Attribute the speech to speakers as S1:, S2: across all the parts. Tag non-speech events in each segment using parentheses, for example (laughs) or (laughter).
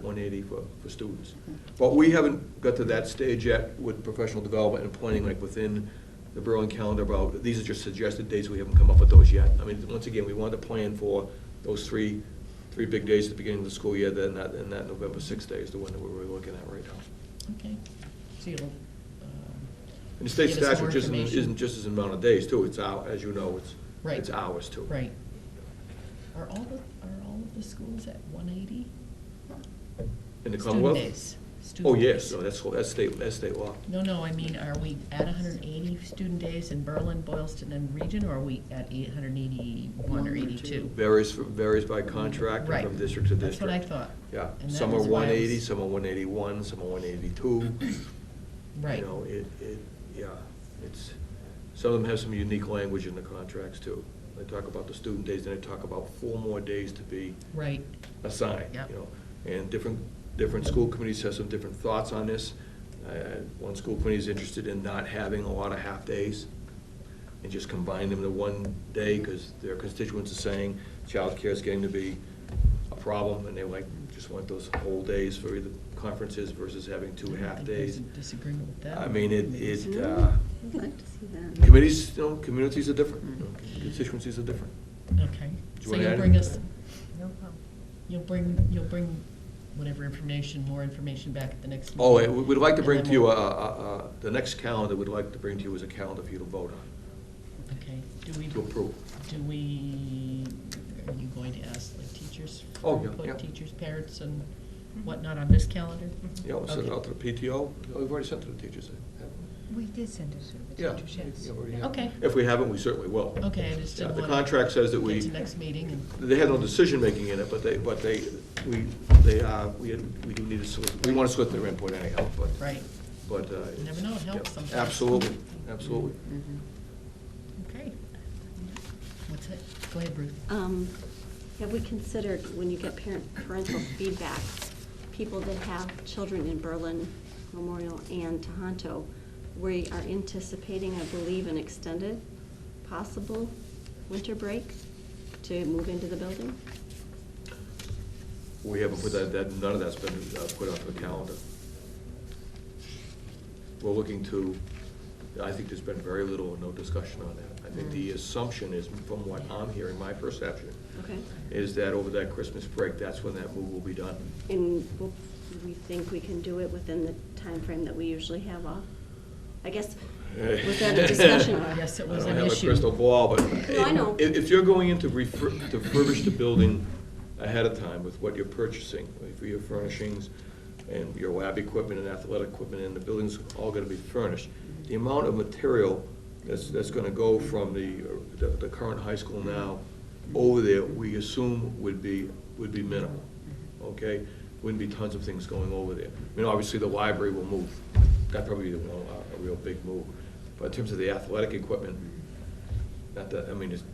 S1: 180 for, for students. But we haven't got to that stage yet with professional development and planning, like within the Berlin calendar, about, these are just suggested dates, we haven't come up with those yet. I mean, once again, we want to plan for those three, three big days at the beginning of the school year, then that, and that November 6th day is the one that we're really looking at right now.
S2: Okay, so you'll. um,
S1: And the state
S2: give us more
S1: statute isn't,
S2: information?
S1: isn't just as amount of days too, it's our, as you know, it's,
S2: Right.
S1: it's hours too.
S2: Right. Are all, the are all of the schools at one eighty?
S1: In the Commonwealth?
S2: Student days.
S1: Oh,
S2: Student
S1: yes,
S2: days.
S1: no, that's, that's state, that's state law.
S2: No, no, I mean, are we at hundred and eighty student days in Berlin, Boylston, and region, or are we at eight hundred and eighty-one or
S3: One or two.
S2: eighty-two?
S1: Varies, varies by contract and
S2: Right.
S1: from district to
S2: That's
S1: district.
S2: what I thought.
S1: Yeah,
S2: And that
S1: some are
S2: was why I
S1: one eighty,
S2: was-
S1: some are one eighty-one, some are one
S2: (clears throat)
S1: eighty-two.
S2: Right,
S1: You know, it, it, yeah, it's, some of them have some unique language in the contracts too. They talk about the student days, then they talk about four more days to be
S2: right,
S1: assigned,
S2: Yep.
S1: you know. And different, different school committees have some different thoughts on this. Uh, One school committee is interested in not having a lot of half-days and just combine them to one day because their constituents are saying childcare is getting to be a problem and they like, just want those whole days for either conferences versus having
S2: I
S1: two
S2: don't think
S1: half-days.
S2: there's a disagreement with that.
S1: I mean, it, it,
S3: Mhm.
S1: uh,
S3: I'd like to see that.
S1: committees, you know, communities are different, you know,
S2: Mm-hmm.
S1: constituencies are different.
S2: Okay,
S1: Do you
S2: so
S1: wanna
S2: you'll
S1: add
S2: bring us,
S1: anything?
S4: No problem.
S2: you'll bring, you'll bring whatever information, more information back at the next meeting.
S1: Oh, and we- we'd like to
S2: and
S1: bring
S2: then
S1: to you, uh,
S2: we'll-
S1: uh, uh, the next calendar we'd like to bring to you is a calendar for you to vote on,
S2: Okay, do we?
S1: to approve.
S2: Do we, are you going to ask like teachers?
S1: Oh,
S2: for
S1: yeah,
S2: input,
S1: yeah.
S2: Teachers, parents and
S3: Mm-hmm.
S2: whatnot on this calendar?
S1: Yeah, we'll send it
S2: Okay.
S1: out to the PTO. Oh, We've already sent it to the teachers, haven't we?
S4: We did send us a
S1: Yeah,
S4: teacher's yes.
S1: yeah, we already
S4: Yeah.
S1: have.
S2: Okay.
S1: If we haven't, we certainly will.
S2: Okay, I just
S1: Yeah,
S2: didn't
S1: The
S2: want to.
S1: contract says that we.
S2: Get to next meeting and.
S1: They had no decision-making in it, but they, but they, we, they, uh, we, we do need to solicit, we want to solicit their input anyhow, but.
S2: Right.
S1: But. uh,
S2: You never know, it helps
S1: yeah,
S2: sometimes. Mm-hmm.
S1: Absolutely, absolutely.
S3: Mhm.
S2: Okay. What's it? Go ahead, Ruth.
S3: Um, Have we considered, when you get parent, parental feedback, people that have children in Berlin, Memorial, and Tohoto, we are anticipating, I believe, an extended possible winter break to move into the building?
S1: We haven't put that, that, none of that's been uh, put onto the calendar. We're looking to, I think there's been very little or no discussion on that. I think
S3: Mm.
S1: the assumption is, from what I'm hearing, my perception,
S3: Okay.
S1: is that over that Christmas break, that's when that move will be done.
S3: And we'll- we think we can do it within the time frame that we usually have off?
S1: (laughs)
S3: I guess, was that a discussion?
S2: Yes, it was
S1: I
S2: an
S1: don't have a
S2: issue.
S1: crystal ball, but
S3: No, I know.
S1: if, if you're going in to refur- to furbish the building ahead of time with what you're purchasing, for your furnishings and your lab equipment and athletic equipment, and the building's all gonna be furnished, the amount of material that's, that's gonna go from the, the, the current high school now over there, we assume would be, would be minimal, okay? Wouldn't be tons of things going over there. I mean, obviously, the library will move, that probably be the one, a- a real big move. But in terms of the athletic equipment, not that, I mean, it's,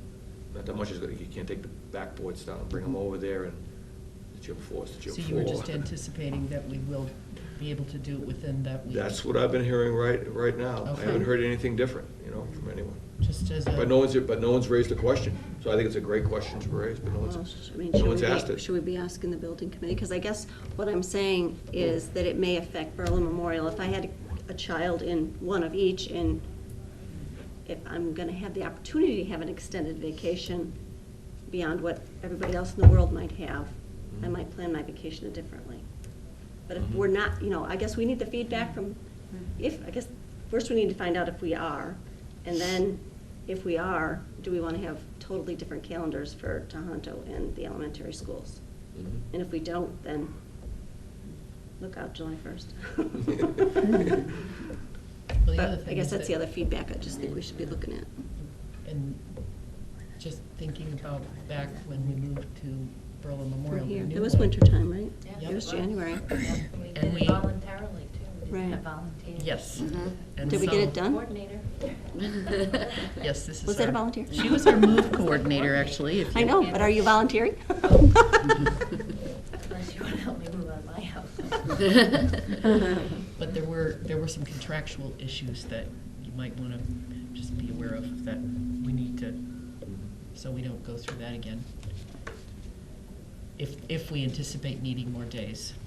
S1: not that much is, gonna- you can't take the backboards down, bring them over there and the gym floor, is the gym
S2: So
S1: floor.
S2: you were
S1: (laughs)
S2: just anticipating that we will be able to do it within that week?
S1: That's what I've been hearing right, right now. I haven't
S2: Okay.
S1: heard anything different, you know, from anyone.
S2: Just as a.
S1: But no one's, but no one's raised a question, so I think it's a great question to raise, but no
S3: Well,
S1: one's,
S3: sh- I mean,
S1: no
S3: should
S1: one's
S3: we be-
S1: asked it.
S3: Should we be asking the building committee? Because I guess what I'm saying is that it may affect Berlin Memorial. If I had a child in one of each, and if I'm gonna have the opportunity to have an extended vacation beyond what everybody else in the world might have, I
S1: Mhm.
S3: might plan my vacation differently. But if
S1: Mhm.
S3: we're not, you know, I guess we need the feedback from, if, I guess, first we need to find out if we are, and then if we are, do we want to have totally different calendars for Tohoto and the elementary schools?
S1: Mhm.
S3: And if we don't, then look out July first. (laughs)
S2: Well, the other
S3: But I
S2: thing
S3: guess
S2: is
S3: that's
S2: that-
S3: the other feedback I just think we should be looking at.
S2: And just thinking about back when we moved to Berlin Memorial. we
S3: Here,
S2: knew
S3: it was
S2: what-
S3: winter time, right?
S2: Yeah.
S3: It was January.
S4: We
S2: And
S4: did
S2: we-
S4: it voluntarily too. We
S3: Right.
S4: didn't have volunteers.
S2: Yes. And
S3: Did we get
S2: so-
S3: it done?
S4: Mm-hmm. Coordinator.
S2: (laughs) Yes, this is.
S3: Was that a
S2: our-
S3: volunteer?
S2: She was our
S3: (laughs)
S2: move coordinator, actually, if you.
S3: I know, but are you volunteering? (laughs)
S4: Unless you want to help me move out of my house.
S2: (laughs) (laughs) But there were, there were some contractual issues that you might want to just be aware of that we need to, so we don't go through that again. If, if we anticipate needing more days.